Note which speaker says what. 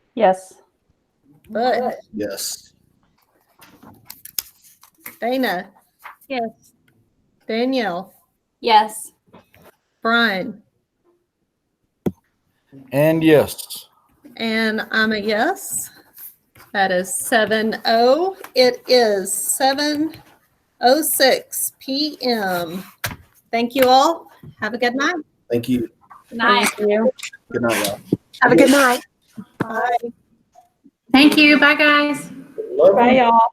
Speaker 1: Yes.
Speaker 2: But
Speaker 3: Yes.
Speaker 2: Dana,
Speaker 4: Yes.
Speaker 2: Danielle,
Speaker 4: Yes.
Speaker 2: Brian,
Speaker 3: And yes.
Speaker 2: and I'm a yes. That is seven oh. It is seven oh six PM. Thank you all. Have a good night.
Speaker 3: Thank you.
Speaker 4: Nice.
Speaker 3: Good night, y'all.
Speaker 5: Have a good night.
Speaker 2: Bye.
Speaker 4: Thank you. Bye, guys.
Speaker 3: Love you.
Speaker 1: Bye, y'all.